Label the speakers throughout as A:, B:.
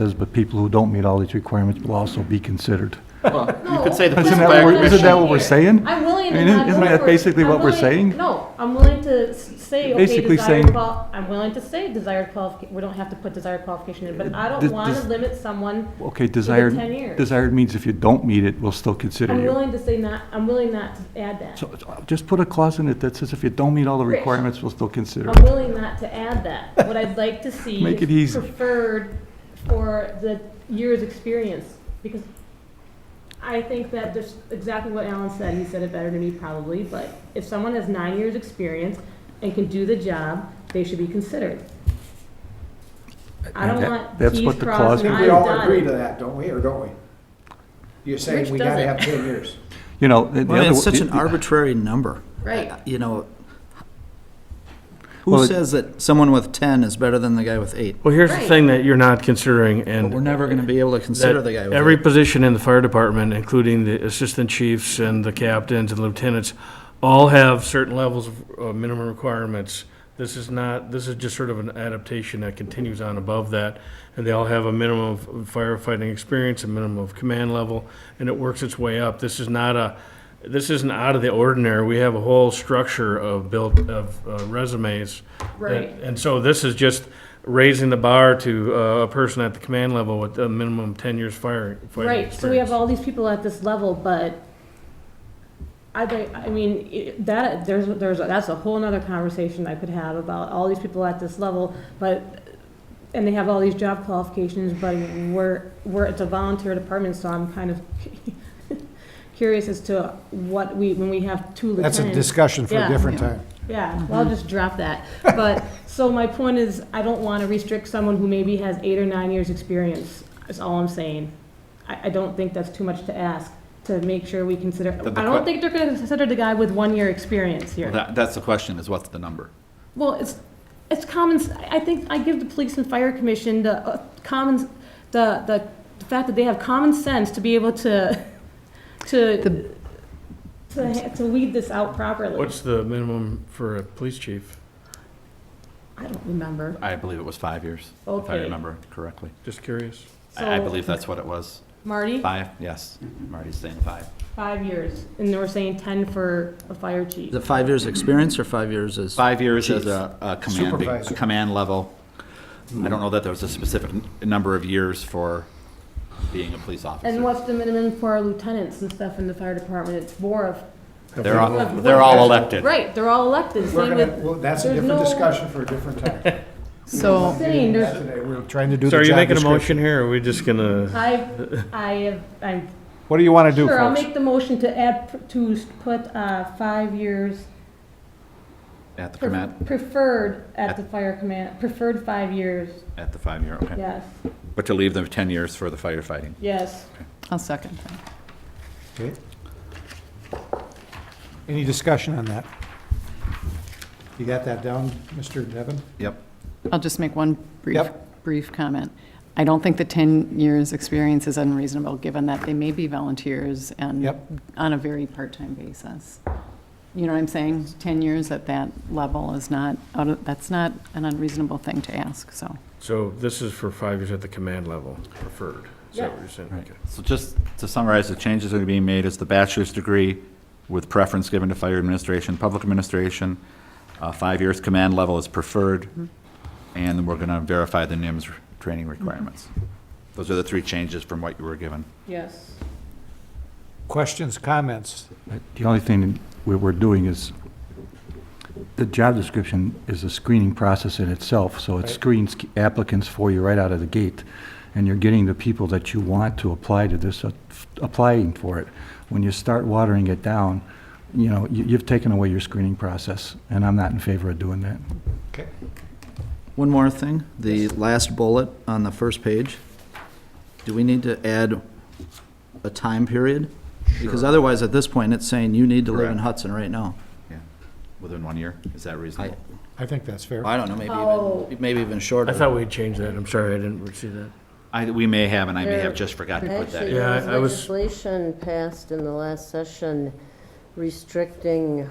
A: says, but people who don't meet all these requirements will also be considered.
B: You could say the
A: Isn't that what
B: police back-
A: we're- isn't that what we're saying?
C: I'm willing
A: I
C: to
A: mean,
C: not
A: isn't
C: go
A: that
C: for-
A: basically
C: I'm
A: what we're
C: willing-
A: saying?
C: No, I'm willing to s- say, okay,
A: Basically
C: desired
A: saying-
C: qual, I'm willing to say desired qualification, we don't have to put desired qualification in, but I
A: Does-
C: don't want
A: does-
C: to limit someone.
A: Okay, desired,
C: 10 years.
A: desired means if you don't meet it, we'll still consider
C: I'm
A: you.
C: willing to say not, I'm willing not to add that.
A: So uh, just put a clause in it that says if you don't meet all the
C: Rich.
A: requirements, we'll still consider.
C: I'm willing not to add that. What I'd like to see
A: Make it
C: is
A: easy.
C: preferred for the year's experience, because I think that just exactly what Alan said, he said it better than me probably, but if someone has nine years' experience and can do the job, they should be considered. I don't
A: That-
C: want
A: that's
C: T's
A: what the
C: crossed
A: clause-
C: and
A: I
D: think we
C: I's
D: all agree
C: dotted.
D: to that, don't we, or don't we? You're
C: Rich
D: saying we gotta
C: doesn't.
D: have ten years.
A: You know, and the
E: Well,
A: other.
E: it's such an
A: the-
E: arbitrary number.
C: Right.
E: You know,
A: Well, it-
E: who says that someone with 10 is better than the guy with eight?
F: Well, here's the
C: Right.
F: thing that you're not considering, and.
E: But we're never going to be able to consider
F: that
E: the guy with
F: Every
E: eight.
F: position in the fire department, including the assistant chiefs and the captains and lieutenants, all have certain levels of uh, minimum requirements. This is not, this is just sort of an adaptation that continues on above that, and they all have a minimum of firefighting experience, a minimum of command level, and it works its way up. This is not a, this isn't out of the ordinary. We have a whole structure of built, of uh, resumes. that-
C: Right.
F: And so this is just raising the bar to uh, a person at the command level with a minimum of 10 years fire. fighting
C: Right, so we have
F: experience.
C: all these people at this level, but I, think- I mean, it- that, there's, there's, that's a whole nother conversation I could have about all these people at this level, but, and they have all these job qualifications, but we're, we're, it's a volunteer department, so I'm kind of curious as to what we, when we have two lieutenants.
D: That's a discussion for
C: Yeah.
D: a different
E: Yeah.
D: time.
C: Yeah, well, I'll just drop that. But, so my point is, I don't want to restrict someone who maybe has eight or nine years' experience, is all I'm saying. I, I don't think that's too much to ask, to make sure we consider,
B: But the
C: I
B: que-
C: don't think they're going to consider the guy with one year experience
B: Well,
C: here.
B: that- That's the question, is what's the number?
C: Well, it's, it's common, s- I I think, I give the police and fire commission the uh, common, the, the the fact that they have common sense to be able to, to, to ha- to weed this out properly.
F: What's the minimum for a police chief?
C: I don't remember.
B: I believe it was five years, if I
C: Okay.
B: remember correctly.
F: Just curious.
B: I I
C: So-
B: believe that's what it was.
C: Marty?
B: Five, yes. Marty's saying five.
C: Five years, and we're saying ten for a fire chief.
E: Is it five years' experience or five years is?
B: Five years as
E: Chief.
B: a a command, a
D: Supervisor.
B: command level. I don't know that there was a specific n- number of years for being a police officer.
C: And what's the minimum for our lieutenants and stuff in the fire department? It's more of,
B: They're all,
C: Of
B: they're all elected.
C: right, they're all elected,
D: We're
C: same
D: gonna,
C: with,
D: well, that's a
C: there's
D: different
C: no-
D: discussion for a different time.
C: so saying,
D: That's
C: there's,
D: today, we're trying to do
F: So
D: the
F: are you
D: job
F: making a
D: description.
F: motion here, or are we just gonna?
C: I, I have, I'm,
D: What do you wanna do,
C: sure, I'll
D: folks?
C: make the motion to add, to put, uh, five years
B: At the
C: pre-
B: command,
C: preferred at the fire command, preferred five years,
B: at the five-year, okay.
C: yes,
B: But to leave them 10 years for the firefighting.
C: yes.
G: I'll second that.
D: Okay. Any discussion on that? You got that down, Mr. Devon?
B: Yep.
G: I'll just make one brief,
D: Yep.
G: brief comment. I don't think the 10 years' experience is unreasonable, given that they may be volunteers and
D: Yep.
G: on a very part-time basis. You know what I'm saying? 10 years at that level is not, out of- that's not an unreasonable thing to ask, so.
F: So this is for five years at the command level preferred. Is that what you're saying?
B: Right.
F: Okay.
B: So just to summarize, the changes that are being made is the bachelor's degree with preference given to fire administration, public administration. Uh, Five years command level is preferred. And then we're going to verify the NIMS r- training requirements. Those are the three changes from what you were given.
C: Yes.
D: Questions, comments?
A: The only thing we we're doing is, the job description is a screening process in itself, so it
D: Right.
A: screens applicants for you right out of the gate, and you're getting the people that you want to apply to this, uh, f- applying for it. When you start watering it down, you know, you- you've taken away your screening process, and I'm not in favor of doing that.
D: Okay.
E: One more thing, the last bullet on the first page. Do we need to add a time period? Because otherwise, at this point, it's saying you need to live in
B: Correct.
E: Hudson right now.
B: Yeah. Within one year, is that reasonable?
D: I think that's fair.
E: I don't know, maybe
C: Oh.
E: even, maybe even shorter.
F: I thought we'd change that. I'm sorry, I didn't see that.
B: I, we may have, and I may
H: There-
B: have just forgotten to put that
H: Actually,
B: in.
F: Yeah,
H: there was
F: I- I was-
H: legislation passed in the last session restricting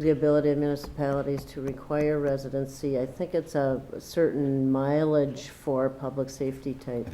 H: the ability of municipalities to require residency. I think it's a certain mileage for public safety tank